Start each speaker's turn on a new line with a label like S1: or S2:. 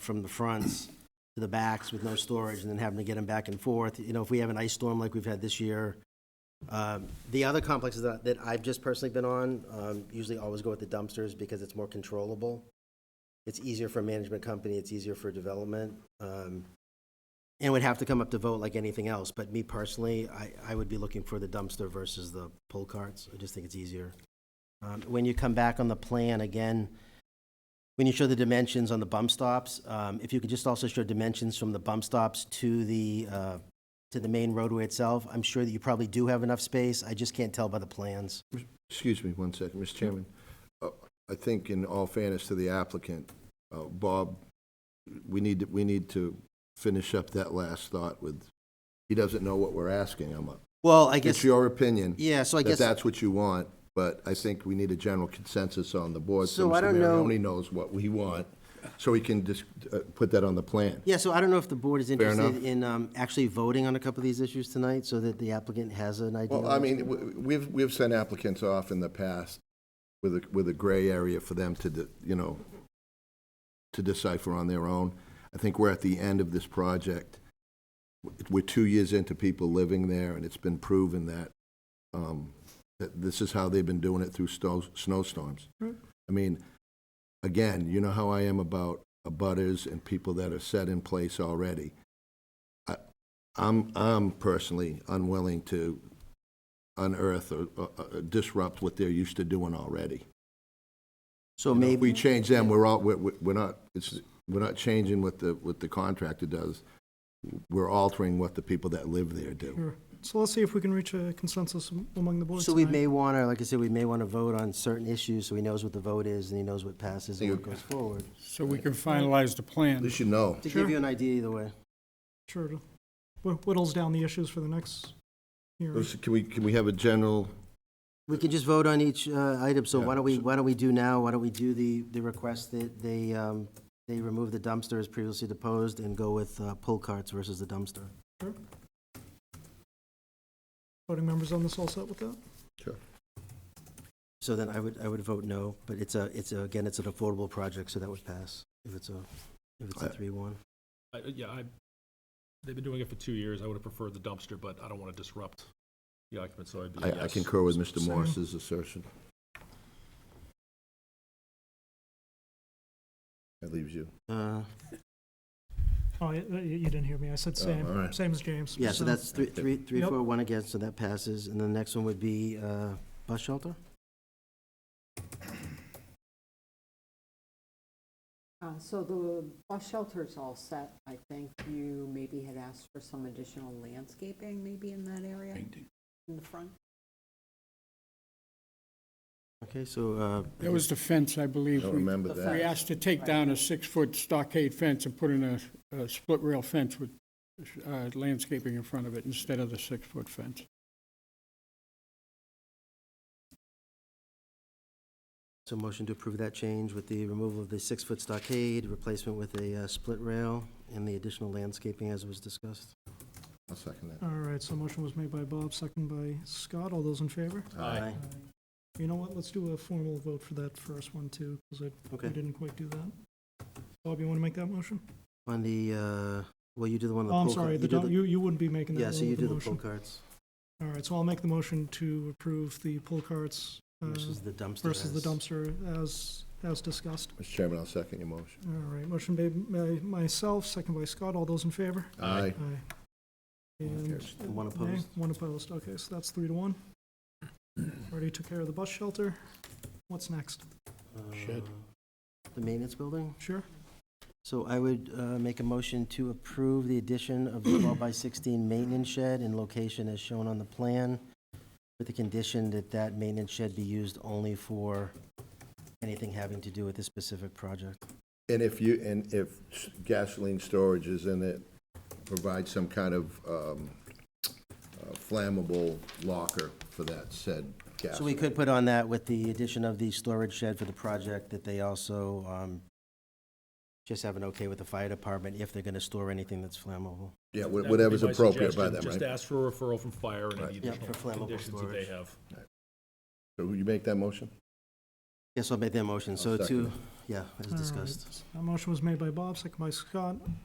S1: from the fronts to the backs with no storage, and then having to get them back and forth. You know, if we have an ice storm like we've had this year. Um, The other complexes that, that I've just personally been on, um, usually always go with the dumpsters because it's more controllable. It's easier for a management company, it's easier for development. um, And would have to come up to vote like anything else, but me personally, I, I would be looking for the dumpster versus the pull carts. I just think it's easier. Um, When you come back on the plan, again, when you show the dimensions on the bump stops, um, if you could just also show dimensions from the bump stops to the, uh, to the main roadway itself, I'm sure that you probably do have enough space, I just can't tell by the plans.
S2: Excuse me one second, Mr. Chairman. Uh, I think in all fairness to the applicant, uh, Bob, we need, to- we need to finish up that last thought with, he doesn't know what we're asking him.
S1: Well, I
S2: It's
S1: guess,
S2: your opinion
S1: yeah, so I
S2: that
S1: guess,
S2: that's what you want, but I think we need a general consensus on the board.
S1: So I
S2: Mr.
S1: don't know-
S2: Marioni knows what we want, so he can just uh, put that on the plan.
S1: yeah, so I don't know if the board is interested
S2: enough.
S1: in um, actually voting on a couple of these issues tonight, so that the applicant has an idea.
S2: Well, I mean, w- we've, we've sent applicants off in the past with a, with a gray area for them to, de- you know, to decipher on their own. I think we're at the end of this project. We're two years into people living there, and it's been proven that, um, that this is how they've been doing it through snow, snowstorms. I mean, again, you know how I am about abutters and people that are set in place already. I, I'm, I'm personally unwilling to unearth or uh, uh, disrupt what they're used to doing already.
S1: So
S2: You know, if
S1: maybe,
S2: We change them, we're all, we're, we're we're not, it's, we're not changing what the, what the contractor does. We're altering what the people that live there do.
S3: Sure. So let's see if we can reach a consensus am- among the boards
S1: so we
S3: tonight.
S1: may want to, like I said, we may want to vote on certain issues, so he knows what the vote is, and he knows what passes and what
S2: You-
S1: goes forward.
S4: So we can finalize the plan.
S2: At least you know.
S1: To
S3: Sure.
S1: give you an idea either way.
S3: Sure, to wh- whittles down the issues for the next hearing.
S2: Those- Can we, can we have a general,
S1: We can just vote on each uh, item, so
S2: Yeah,
S1: why don't we,
S2: so-
S1: why don't we do now, why don't we do the, the request that they, um, they remove the dumpster as previously deposed and go with uh, pull carts versus the dumpster?
S3: Voting members on this all set with that?
S1: So then I would, I would vote no, but it's a, it's a, again, it's an affordable project, so that would pass if it's a, if it's a
S2: I-
S1: three-one.
S5: I- uh, Yeah, I, they've been doing it for two years. I would have preferred the dumpster, but I don't want to disrupt the occupants, so I'd be a
S2: I, I
S5: yes.
S2: concur with Mr.
S3: Same.
S2: Morris's assertion. That leaves you.
S1: Uh,
S3: Oh, you, you you didn't hear me. I said
S2: Oh, all
S3: same,
S2: right.
S3: same as James.
S1: yeah, so that's three, three, three,
S3: Yep.
S1: four, one against, so that passes, and the next one would be, uh, bus shelter?
S6: Uh, So the bus shelter's all set. I think you maybe had asked for some additional landscaping maybe in that area? In the front?
S1: Okay, so, uh. I
S4: That was the fence, I believe.
S2: Don't
S4: We
S2: remember
S6: The
S2: that.
S4: we asked to take down a six-foot stockade fence and put in a, a split rail fence with uh, landscaping in front of it instead of the six-foot fence.
S1: So motion to approve that change with the removal of the six-foot stockade, replacement with a uh, split rail, and the additional landscaping as was discussed.
S2: I'll second
S3: All right, so motion was made by Bob, second by Scott. All those in favor?
S2: that. Aye.
S3: You know what? Let's do a formal vote for that first one too, because I,
S1: Okay.
S3: I didn't quite do that. Bob, you want to make that motion?
S1: On the, uh, well, you do the one on the
S3: Oh,
S1: pull
S3: I'm
S1: cart.
S3: sorry,
S1: You
S3: the,
S1: do
S3: don't- you, you wouldn't be making that
S1: Yeah,
S3: one
S1: so you
S3: with the
S1: do the pull
S3: motion.
S1: carts
S3: All right, so I'll make the motion to approve the pull carts uh,
S1: versus the dumpster.
S3: versus the
S1: as-
S3: dumpster as, as discussed.
S2: Mr. Chairman, I'll second your motion.
S3: All right, motion made by myself, second by Scott. All those in favor?
S2: Aye.
S3: Aye.
S2: One
S3: And.
S2: carries.
S1: And one
S3: nay,
S1: opposed.
S3: One opposed, okay, so that's three to one. Already took care of the bus shelter. What's next?
S1: uh,
S4: Shed.
S1: The maintenance building.
S3: Sure?
S1: So I would uh, make a motion to approve the addition of the 12 by 16 maintenance shed in location as shown on the plan, with the condition that that maintenance shed be used only for anything having to do with this specific project.
S2: And if you, and if gasoline storage is in it, provide some kind of um, uh, flammable locker for that said gas.
S1: So we could put on that with the addition of the storage shed for the project, that they also um, just have an okay with the fire department if they're going to store anything that's flammable.
S2: Yeah,
S5: That would
S2: wha-
S5: be
S2: whatever's
S5: my
S2: appropriate by
S5: suggestion.
S2: them,
S5: Just
S2: right?
S5: ask for a referral from fire and
S2: Right.
S5: any
S1: Yeah, for
S5: additional
S1: flammable
S5: conditions that they
S1: storage.
S5: have.
S2: So will you make that motion?
S1: Yes, I'll make that motion.
S2: I'll
S1: So
S2: second
S1: to, yeah, as
S3: All right.
S1: discussed.
S3: That motion was made by Bob, second by Scott.